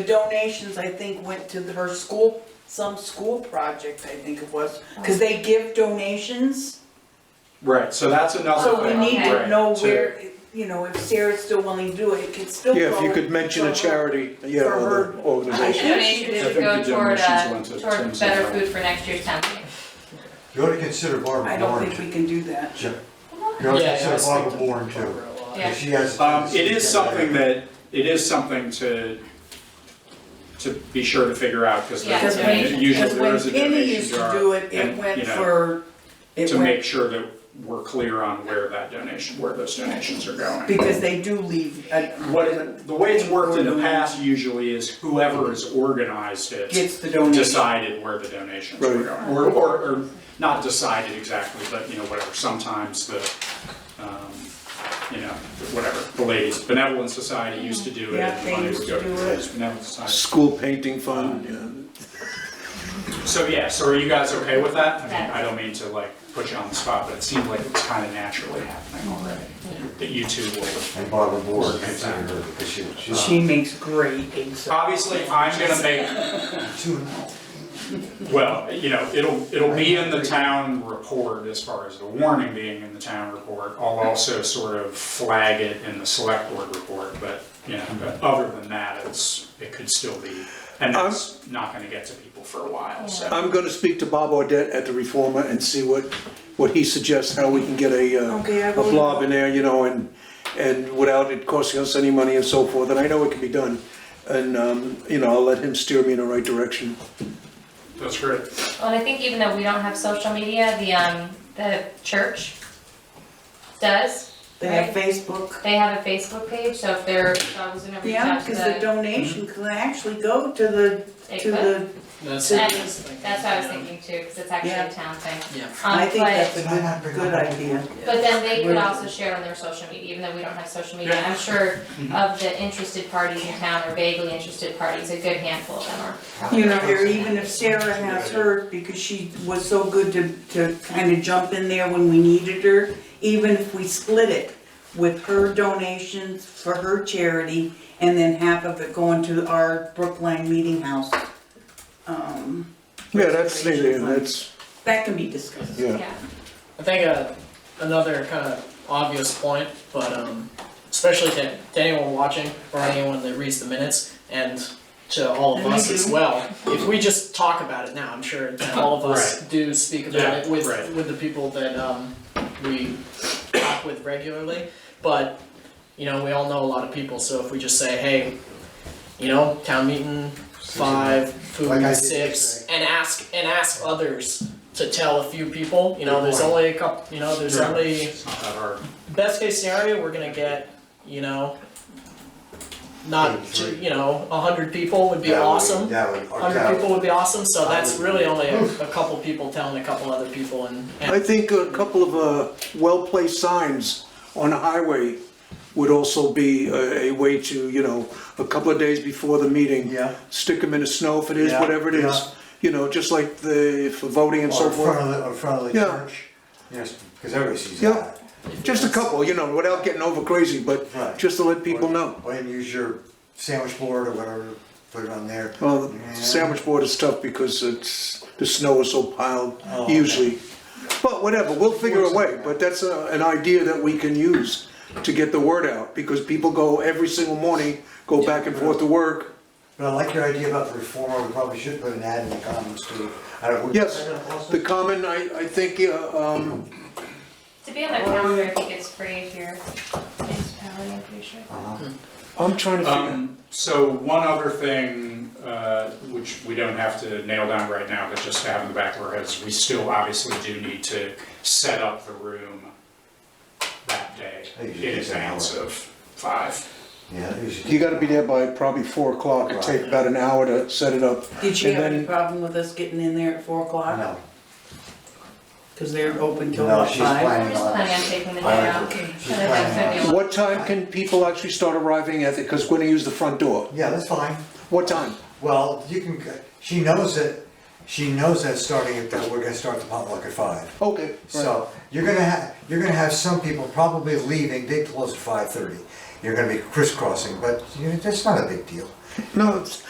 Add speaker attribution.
Speaker 1: The donations, I think, went to the- her school, some school project, I think it was, because they give donations.
Speaker 2: Right, so that's
Speaker 3: Oh,
Speaker 2: another
Speaker 1: So we
Speaker 2: thing,
Speaker 1: need to
Speaker 2: right,
Speaker 1: know where, you know, if Sarah's still willing to do it, it could still go.
Speaker 3: Yeah, if you could mention a charity, yeah,
Speaker 1: for
Speaker 3: or
Speaker 1: her-
Speaker 3: the organization.
Speaker 1: I
Speaker 4: Donations
Speaker 2: think
Speaker 4: should
Speaker 2: the
Speaker 4: go toward,
Speaker 2: donations
Speaker 4: uh,
Speaker 2: went to
Speaker 4: toward
Speaker 2: Tim's
Speaker 4: better
Speaker 2: account.
Speaker 4: food for next year's town meeting.
Speaker 5: You ought to consider Barbara
Speaker 1: I don't
Speaker 5: Bourne
Speaker 1: think
Speaker 5: too.
Speaker 1: we can do that.
Speaker 5: Yeah. You ought to consider Barbara Bourne too.
Speaker 4: Yeah.
Speaker 5: If she has. a
Speaker 2: Um, it
Speaker 5: tendency
Speaker 2: is
Speaker 5: to-
Speaker 2: something that, it is something to, to be sure to figure out, because
Speaker 4: Yeah,
Speaker 1: Because
Speaker 4: donation.
Speaker 1: when,
Speaker 2: usually
Speaker 1: because
Speaker 2: there
Speaker 1: when
Speaker 2: is a
Speaker 1: Penny used
Speaker 2: donation
Speaker 1: to
Speaker 2: jar.
Speaker 1: do it, it
Speaker 2: and,
Speaker 1: went
Speaker 2: you know,
Speaker 1: for, it
Speaker 2: To
Speaker 1: went,
Speaker 2: make sure that we're clear on where that donation, where those donations are going.
Speaker 1: because they do leave, uh,
Speaker 2: What, it- the way it's worked in the past usually is whoever has organized it
Speaker 1: gets the donation.
Speaker 2: decided where the donations were
Speaker 3: Right.
Speaker 2: going. Or, or, or not decided exactly, but, you know, whatever, sometimes the, um, you know, whatever, the ladies, benevolent society used to do it.
Speaker 1: Yeah,
Speaker 2: and
Speaker 1: they
Speaker 2: money would
Speaker 1: used
Speaker 2: go
Speaker 1: to do
Speaker 2: the
Speaker 1: it.
Speaker 2: Ladies' benevolent society.
Speaker 3: School painting fund, yeah.
Speaker 2: So yeah, so are you guys okay with that? I mean, I don't mean to like put you on the spot, but it seemed like it's kind of naturally happening already, that you two will.
Speaker 5: And Barbara Bourne, consider her because she, uh, she's
Speaker 6: She makes great pizza.
Speaker 2: Obviously, I'm gonna make,
Speaker 5: too.
Speaker 2: well, you know, it'll, it'll be in the town report as far as the warning being in the town report. I'll also sort of flag it in the select board report, but, you know, but other than that, it's, it could still be, and that's not gonna get to people for a while, so.
Speaker 3: I'm gonna speak to Bob Audette at the Reformer and see what, what he suggests, how we can get a, uh,
Speaker 1: Okay, I
Speaker 3: a
Speaker 1: will-
Speaker 3: blob in there, you know, and, and without it costing us any money and so forth, and I know it can be done. And, um, you know, I'll let him steer me in the right direction.
Speaker 2: That's great.
Speaker 4: Well, and I think even though we don't have social media, the, um, the church does.
Speaker 1: They have Facebook.
Speaker 4: They have a Facebook page, so if they're, if I was gonna reach
Speaker 1: Yeah,
Speaker 4: out to
Speaker 1: because the
Speaker 4: the.
Speaker 1: donation
Speaker 2: Mm-hmm.
Speaker 1: can actually go to the,
Speaker 4: they
Speaker 1: to
Speaker 4: could.
Speaker 1: the,
Speaker 6: That's
Speaker 1: to
Speaker 4: That's,
Speaker 1: the
Speaker 4: that's what I was thinking too, because it's actually
Speaker 1: Yeah.
Speaker 4: a town thing.
Speaker 6: Yeah.
Speaker 4: Um,
Speaker 1: I think
Speaker 4: but-
Speaker 1: that's
Speaker 5: Did I not
Speaker 1: a
Speaker 5: bring
Speaker 1: good
Speaker 5: that up?
Speaker 1: idea.
Speaker 4: But then they could also share on their social media, even though we don't have social media.
Speaker 2: Yeah. Mm-hmm.
Speaker 4: I'm sure of the interested parties in town or vaguely interested parties, a good handful of them are
Speaker 5: oh.
Speaker 4: probably.
Speaker 1: You know, or even if Sarah has her, because she was so good to, to kind of jump in there when we needed her, even if we split it with her donations for her charity and then half of it going to our Brookline Meeting House. um,
Speaker 3: Yeah, that's, the- that's,
Speaker 1: That can be discussed.
Speaker 3: yeah.
Speaker 4: Yeah,
Speaker 6: I think uh, another kind of obvious point, but um, especially to, to anyone watching or anyone that reads the minutes and to all of
Speaker 1: And
Speaker 6: us
Speaker 1: we
Speaker 6: as
Speaker 1: do.
Speaker 6: well, if we just talk about it now, I'm sure that all of us do speak
Speaker 2: Yeah,
Speaker 6: about it with,
Speaker 2: right.
Speaker 6: with the people that um, we talk with regularly. But, you know, we all know a lot of people, so if we just say, hey, you know, town meeting, five,
Speaker 5: Like I
Speaker 6: food,
Speaker 5: did
Speaker 6: six,
Speaker 5: yesterday.
Speaker 6: and ask, and ask others to tell a few people, you know, there's only a couple, you know, there's
Speaker 2: Yeah.
Speaker 6: only,
Speaker 2: It's not that hard.
Speaker 6: best case scenario, we're gonna get, you know, not, to- you know, a hundred people would be
Speaker 5: That would-
Speaker 6: awesome.
Speaker 5: That would, or
Speaker 6: Hundred
Speaker 5: that
Speaker 6: people
Speaker 5: would.
Speaker 6: would be awesome, so
Speaker 5: I
Speaker 6: that's
Speaker 5: would-
Speaker 6: really only a, a couple people telling a couple other people and,
Speaker 3: I
Speaker 6: and,
Speaker 3: think a couple of uh, well-placed signs on the highway would also be a a way to, you know, a couple of days before the meeting.
Speaker 5: Yeah.
Speaker 3: Stick them in the snow if it is,
Speaker 5: Yeah,
Speaker 3: whatever it
Speaker 5: yeah.
Speaker 3: is, you know, just like the, for voting and
Speaker 5: Or
Speaker 3: so
Speaker 5: in front
Speaker 3: forth.
Speaker 5: of the, or in front of the
Speaker 3: Yeah.
Speaker 5: church. Yes, because everybody sees
Speaker 3: Yeah.
Speaker 5: that.
Speaker 3: Just a couple, you know, without getting over crazy, but
Speaker 5: Right.
Speaker 3: just to let people
Speaker 5: Or-
Speaker 3: know.
Speaker 5: Or you use your sandwich board or whatever, put it on there.
Speaker 3: Well, the
Speaker 5: Yeah.
Speaker 3: sandwich board is tough because it's, the snow is so piled
Speaker 5: Oh, okay.
Speaker 3: usually. But whatever, we'll figure a way, but that's a- an idea that we can use to get the word out, because people go every single morning, go back and forth to work.
Speaker 5: But I like your idea about the reformer, we probably should put an ad in the comments too. I don't-
Speaker 3: Yes, the common, I, I think, uh, um,
Speaker 4: to be on the calendar, I think it's free if you're municipality, I'm pretty sure.
Speaker 5: Uh-huh.
Speaker 3: I'm trying to figure.
Speaker 2: Um, so one other thing, uh, which we don't have to nail down right now, but just to have in the back of our heads, we still obviously do need to set up the room that day
Speaker 5: I think you should
Speaker 2: in
Speaker 5: do that
Speaker 2: advance of five.
Speaker 5: Yeah. think should-
Speaker 3: You gotta be there by probably four o'clock, it'd take about an hour to set it up.
Speaker 1: Did she
Speaker 3: And
Speaker 1: have any
Speaker 3: then-
Speaker 1: problem with us getting in there at four o'clock?
Speaker 5: No,
Speaker 1: Because they're open till
Speaker 5: no,
Speaker 1: about
Speaker 5: she's
Speaker 1: five.
Speaker 4: I'm
Speaker 5: planning
Speaker 4: just
Speaker 5: on.
Speaker 4: planning on taking the day
Speaker 5: I
Speaker 4: off.
Speaker 5: like her.
Speaker 4: I
Speaker 5: She's
Speaker 4: think that's gonna be
Speaker 5: planning
Speaker 4: a
Speaker 5: on.
Speaker 4: lot.
Speaker 3: What time can people actually start arriving at it, because we're gonna use the front door?
Speaker 5: Yeah, that's fine.
Speaker 3: What time?
Speaker 5: Well, you can, c- she knows that, she knows that starting at, that we're gonna start the potluck at five.
Speaker 3: Okay.
Speaker 5: So, you're gonna have, you're gonna have some people probably leaving, they close at five thirty. You're gonna be crisscrossing, but, you know, that's not a big deal.
Speaker 3: No, it's-